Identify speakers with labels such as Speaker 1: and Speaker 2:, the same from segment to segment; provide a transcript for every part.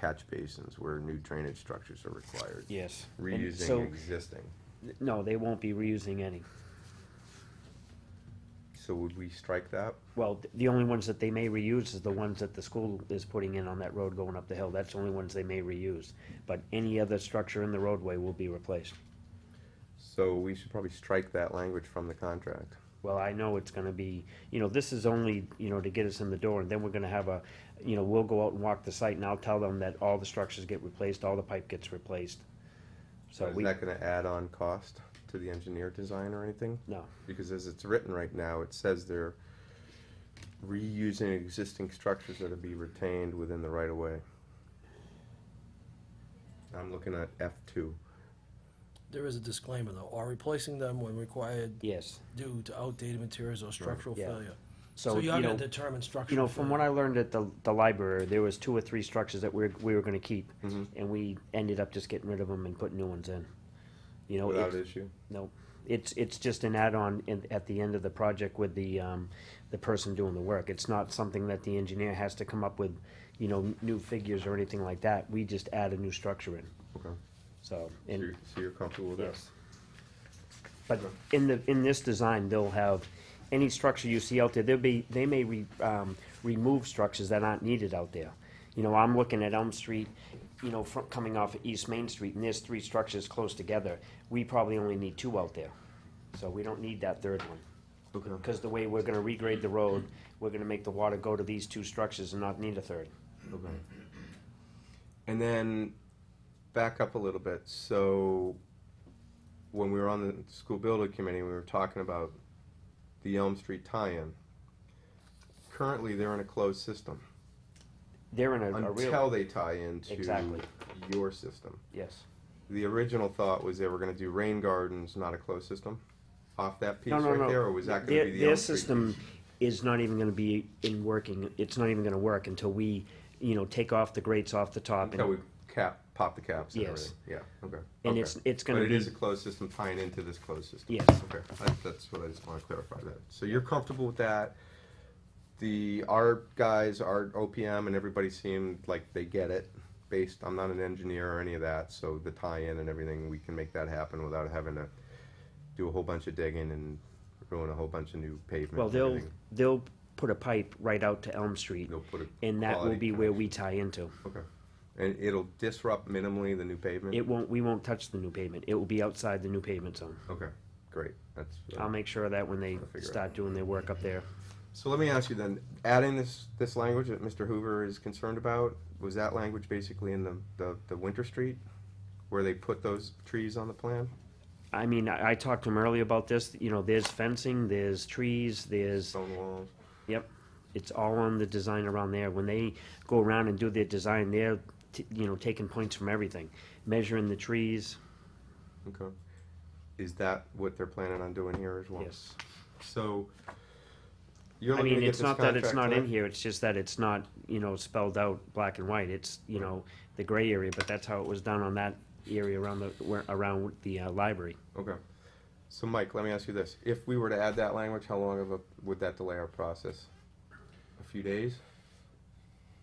Speaker 1: catch basins where new drainage structures are required.
Speaker 2: Yes. And so-
Speaker 1: Reusing existing.
Speaker 2: No, they won't be reusing any.
Speaker 1: So would we strike that?
Speaker 2: Well, th- the only ones that they may reuse is the ones that the school is putting in on that road going up the hill. That's the only ones they may reuse. But any other structure in the roadway will be replaced.
Speaker 1: So we should probably strike that language from the contract.
Speaker 2: Well, I know it's gonna be, you know, this is only, you know, to get us in the door, and then we're gonna have a, you know, we'll go out and walk the site, and I'll tell them that all the structures get replaced, all the pipe gets replaced. So
Speaker 1: Is
Speaker 2: we,
Speaker 1: that gonna add on cost to the engineer design or anything?
Speaker 2: no,
Speaker 1: Because as it's written right now, it says they're reusing existing structures that will be retained within the right of way. I'm looking at F two.
Speaker 3: There is a disclaimer though, are replacing them when required
Speaker 2: yes,
Speaker 3: due to outdated materials or structural
Speaker 2: yeah.
Speaker 3: failure.
Speaker 2: so,
Speaker 3: So
Speaker 2: you
Speaker 3: you're gonna
Speaker 2: know,
Speaker 3: determine structural.
Speaker 2: you know, from what I learned at the, the library, there was two or three structures that we, we were gonna keep,
Speaker 1: Mhm.
Speaker 2: and we ended up just getting rid of them and putting new ones in. You know,
Speaker 1: Without
Speaker 2: it's,
Speaker 1: issue?
Speaker 2: no, it's, it's just an add-on in, at the end of the project with the, um, the person doing the work. It's not something that the engineer has to come up with, you know, n- new figures or anything like that. We just add a new structure in,
Speaker 1: Okay.
Speaker 2: so.
Speaker 1: So
Speaker 2: and-
Speaker 1: you're, so you're comfortable with this?
Speaker 2: Yes. But in the, in this design, they'll have, any structure you see out there, there'll be, they may re, um, remove structures that aren't needed out there. You know, I'm looking at Elm Street, you know, fro- coming off of East Main Street, and there's three structures close together. We probably only need two out there, so we don't need that third one.
Speaker 1: Okay.
Speaker 2: Because the way we're gonna regrade the road, we're gonna make the water go to these two structures and not need a third.
Speaker 1: Okay. And then back up a little bit. So when we were on the school building committee, we were talking about the Elm Street tie-in. Currently, they're in a closed system
Speaker 2: They're in a, a
Speaker 1: until
Speaker 2: real,
Speaker 1: they tie into
Speaker 2: Exactly.
Speaker 1: your system.
Speaker 2: yes.
Speaker 1: The original thought was they were going to do rain gardens, not a closed system, off that piece
Speaker 2: No, no,
Speaker 1: right
Speaker 2: no.
Speaker 1: there, or was that going
Speaker 2: Their-
Speaker 1: to be the
Speaker 2: Their
Speaker 1: Elm Street
Speaker 2: system
Speaker 1: piece?
Speaker 2: is not even gonna be in working, it's not even gonna work until we, you know, take off the grates off the top.
Speaker 1: Until we
Speaker 2: and
Speaker 1: cap, pop the caps and
Speaker 2: Yes.
Speaker 1: everything. Yeah. Okay.
Speaker 2: And
Speaker 1: okay.
Speaker 2: it's, it's gonna
Speaker 1: but
Speaker 2: be,
Speaker 1: it is a closed system tying into this closed system.
Speaker 2: Yes.
Speaker 1: Okay, that, that's what I just want to clarify that. So you're comfortable with that? The our guys, our OPM, and everybody seemed like they get it. Based, I'm not an engineer or any of that, so the tie-in and everything, we can make that happen without having to do a whole bunch of digging and ruin a whole bunch of new pavement.
Speaker 2: well,
Speaker 1: and
Speaker 2: they'll,
Speaker 1: everything.
Speaker 2: they'll put a pipe right out to Elm Street,
Speaker 1: they'll put it.
Speaker 2: and that will be where we tie into.
Speaker 1: Okay, and it'll disrupt minimally the new pavement.
Speaker 2: It won't, we won't touch the new pavement, it will be outside the new pavement zone.
Speaker 1: okay, great. That's. uh,
Speaker 2: I'll make sure of that when they
Speaker 1: I'll figure it
Speaker 2: start doing their work up there.
Speaker 1: So let me ask you then, adding this, this language that Mr. Hoover is concerned about, was that language basically in the, the, the Winter Street? Where they put those trees on the plan?
Speaker 2: I mean, I, I talked to him earlier about this, you know, there's fencing, there's trees, there's
Speaker 1: Stone walls?
Speaker 2: Yep, it's all on the design around there. When they go around and do their design, they're, t- you know, taking points from everything, measuring the trees,
Speaker 1: Okay. Is that what they're planning on doing here as well?
Speaker 2: yes.
Speaker 1: So, you're
Speaker 2: I
Speaker 1: looking to
Speaker 2: mean,
Speaker 1: get
Speaker 2: it's
Speaker 1: this
Speaker 2: not that it's
Speaker 1: contract
Speaker 2: not in
Speaker 1: done?
Speaker 2: here, it's just that it's not, you know, spelled out black and white. It's, you know, the gray area, but that's how it was done on that area around the, where- around the uh, library.
Speaker 1: Okay. So Mike, let me ask you this, if we were to add that language, how long of a, would that delay our process? A few days?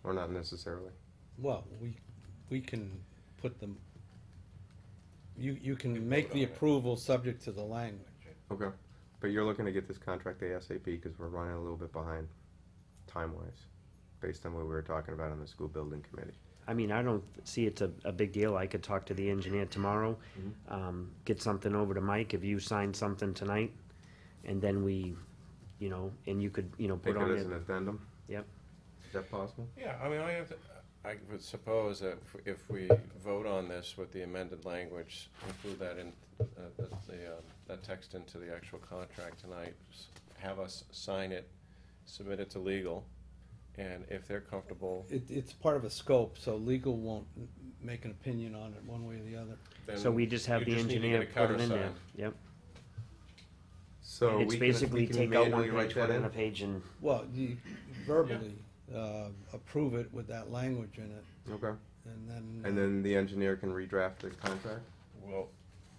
Speaker 1: Or not necessarily?
Speaker 4: Well, we, we can put them, you, you can make the approval subject to the language.
Speaker 1: Okay, but you're looking to get this contract ASAP because we're running a little bit behind time-wise, based on what we were talking about on the school building committee.
Speaker 2: I mean, I don't see it's a, a big deal. I could talk to the engineer tomorrow,
Speaker 1: Mm-hmm.
Speaker 2: um, get something over to Mike, if you sign something tonight, and then we, you know, and you could, you know,
Speaker 1: Take
Speaker 2: put on
Speaker 1: it as an
Speaker 2: it.
Speaker 1: addendum,
Speaker 2: Yep,
Speaker 1: is that possible?
Speaker 5: Yeah, I mean, I have to, I would suppose that if- if we vote on this with the amended language, include that in, uh, the, the, um, that text into the actual contract tonight, s- have us sign it, submit it to legal, and if they're comfortable,
Speaker 4: It, it's part of a scope, so legal won't m- make an opinion on it one way or the other.
Speaker 5: then.
Speaker 2: so we just have
Speaker 5: you
Speaker 2: the
Speaker 5: need to get
Speaker 2: engineer
Speaker 5: a
Speaker 2: put it in there,
Speaker 5: countersign.
Speaker 2: yep.
Speaker 1: So we
Speaker 2: It's
Speaker 1: can- we
Speaker 2: basically
Speaker 1: can
Speaker 2: take out one
Speaker 1: manually write
Speaker 2: page, put
Speaker 1: that
Speaker 2: in
Speaker 1: in?
Speaker 2: a page and,
Speaker 4: Well, you verbally, uh, approve it with that language in it,
Speaker 1: Okay,
Speaker 4: and then. uh,
Speaker 1: and then the engineer can redraft the contract?
Speaker 5: We'll,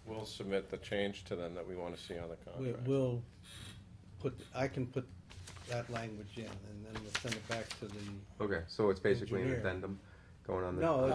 Speaker 5: we'll submit the change to them that we wanna see on the
Speaker 4: We,
Speaker 5: contract.
Speaker 4: we'll put, I can put that language in, and then we'll send it back to the,
Speaker 1: Okay, so it's basically an
Speaker 4: Engineer.
Speaker 1: addendum, going on there?
Speaker 4: No,